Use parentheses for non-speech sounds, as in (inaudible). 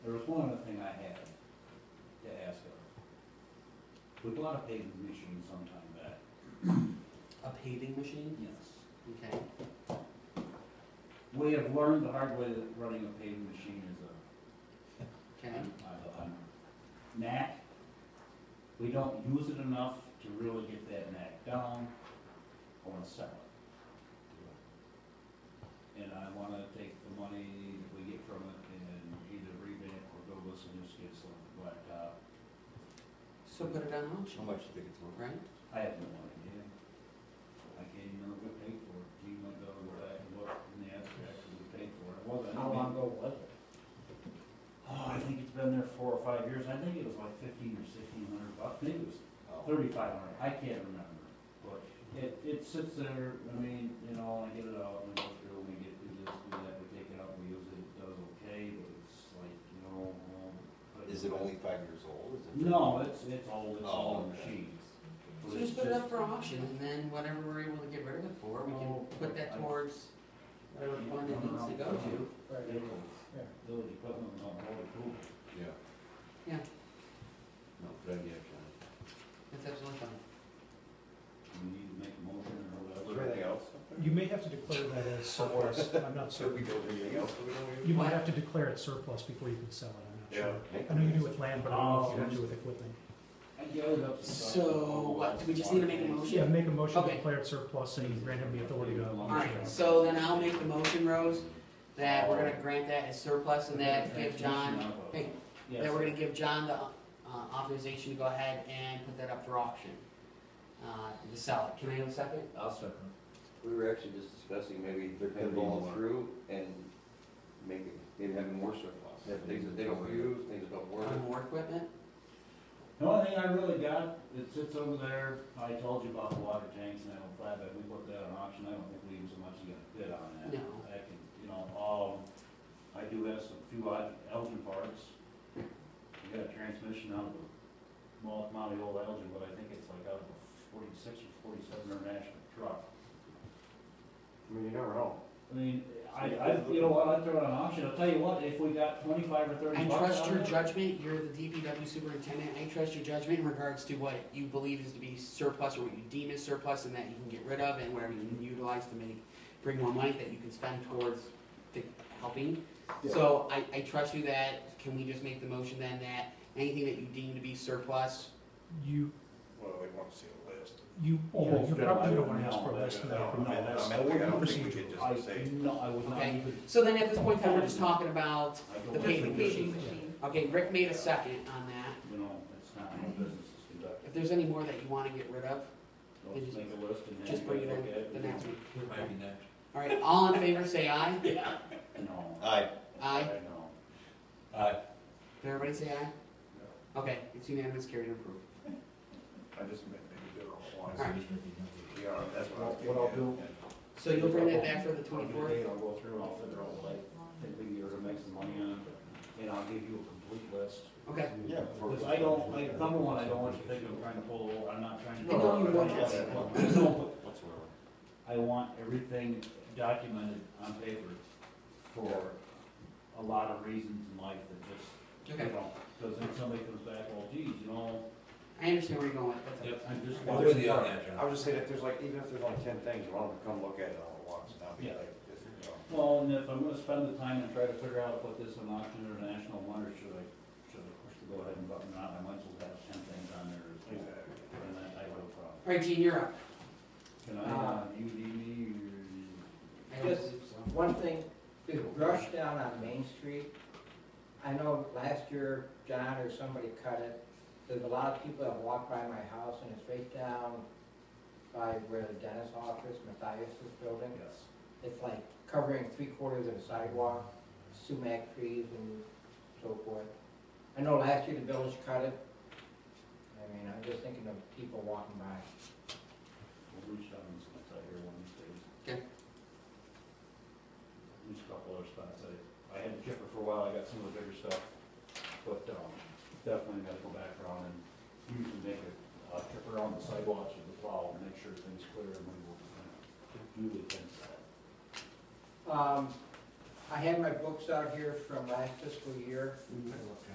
had to ask her. We bought a paving machine sometime back. A paving machine? Yes. Okay. We have learned the hard way that running a paving machine is a Okay. uh, um, knack. We don't use it enough to really get that knack down. I wanna sell it. And I wanna take the money that we get from it and either revamp or go listen to just get some blacktop. So put it on auction, How much do you think it's worth? right? I have no idea. I can't even remember what paid for it. You might go to where I can look in the abstract and we paid for it. It wasn't. How long ago was it? Oh, I think it's been there four or five years. I think it was like fifteen or sixteen hundred bucks. Maybe it was Oh, thirty-five hundred, I can't remember, but it, it sits there, I mean, you know, I get it out, and I go through, we get, we just do that, we take it out, we use it, it does okay, but it's like, you know, um. but- Is it only five years old? Is it- No, it's, it's old, it's Oh, all okay. machines. So just put it up for auction and then whatever we're able to get rid of it for, we can Oh, put that I- towards whatever fund it needs to go to. Village village equipment, not motor pool. Yeah. Yeah. No, good idea, John. That's absolutely fine. we need to make a motion or Is whatever. there anything else? You may have to declare that (laughs) as surplus, I'm not So we certain. go over anything else that we don't You use? might have to declare it surplus before you can sell it, I'm not sure. Make I know you do with land, but I don't know if Oh. you have to do with equipment. I gathered up some stuff. So, what, do we just need to make a motion? Yeah, make a motion to Okay. declare it surplus and grant him the authority to. Alright, so then I'll make the motion, Rose, that we're gonna grant that as surplus and that give John, hey, Yes. that we're gonna give John the uh, authorization to go ahead and put that up for auction. Uh, to sell it. Can I have a second? I'll second. We were actually just discussing maybe There could be pinball more. through and making, maybe having more surplus. Things that they don't use, things that don't work. On more equipment? The only thing I really got, it sits over there, I told you about the water tanks and that old flatbed, we put that on auction, I don't think we even so much got a bid on that. No. I can, you know, um, I do have some few odd Elgin parts. We got a transmission out of a small commodity old Elgin, but I think it's like out of a forty-six or forty-seven international truck. I mean, you never know. I mean, I, I, you know what, I'd throw it on auction, I'll tell you what, if we got twenty-five or thirty I bucks trust on your it, judgment, you're the DPW superintendent, I trust your judgment in regards to what you believe is to be surplus or what you deem is surplus and that you can get rid of and whatever you can utilize to make, bring more money that you can spend towards fi- helping. So I, I trust you that, can we just make the motion then that anything that you deem to be surplus, You, Well, we want to see a list. you, Oh, yeah, you yeah, probably I don't wanna don't ask for know. less than I that. don't know. No, that's- I mean, I don't think we procedural. could I, just say, no, I would not Okay. even. so then at this point in time, we're just talking about, I don't The think paving we should. machine. okay, Rick made a second on that. you know, it's not how business is conducted. If there's any more that you wanna get rid of, Let's make a list and then. just bring it look at in the next week. It might be next. Alright, all in favor, say aye. No. Aye. Aye. No. Aye. Did everybody say aye? Okay, it's unanimous, carried and approved. I just meant maybe do it all at once. Alright, Yeah, that's what I was What I'll thinking. so you'll bring that back for the twenty-fourth? I'll go through and I'll figure out what I think we can get to make some money on it, and I'll give you a complete list. Okay, Yeah. Because I don't, like, number one, I don't want you to think I'm trying to pull, a- I'm not trying to. I know you want I don't. I want everything documented on paper for a lot of reasons in life that just, you okay, know, because then somebody comes back, well, geez, you know, I understand where you're going with that. I'm just. Well, there's the Yeah. other I was just saying, if there's like, even if there's only ten things, you want them to come look at it all at once, not be Yeah. like, just, you know. Well, and if I'm gonna spend the time and try to figure out what this an auction or a national one, or should I, should I push the go ahead and button it out, I might as well have ten things on there as well. uh, Exactly. And that I will probably. Alright, Gene, you're up. Can I, uh, you need me, or? I don't Yes. believe so. One thing, the brush down on Main Street, I know last year John or somebody cut it. There's a lot of people that walk by my house and it's right down by where the dentist office, Matthias's building. Yes. It's like covering three quarters of the sidewalk, sumac trees and so forth. I know last year the village cut it. I mean, I'm just thinking of people walking by. We'll reach out and see if I hear one of these days. Okay. There's a couple other spots, I, I had a chipper for a while, I got some of the bigger stuff, but, um, definitely gotta go back around and usually make a, uh, trip around the sidewalks with the plow and make sure things clear and we will, uh, do the things that. Um, I had my books out here from last fiscal year. Mm,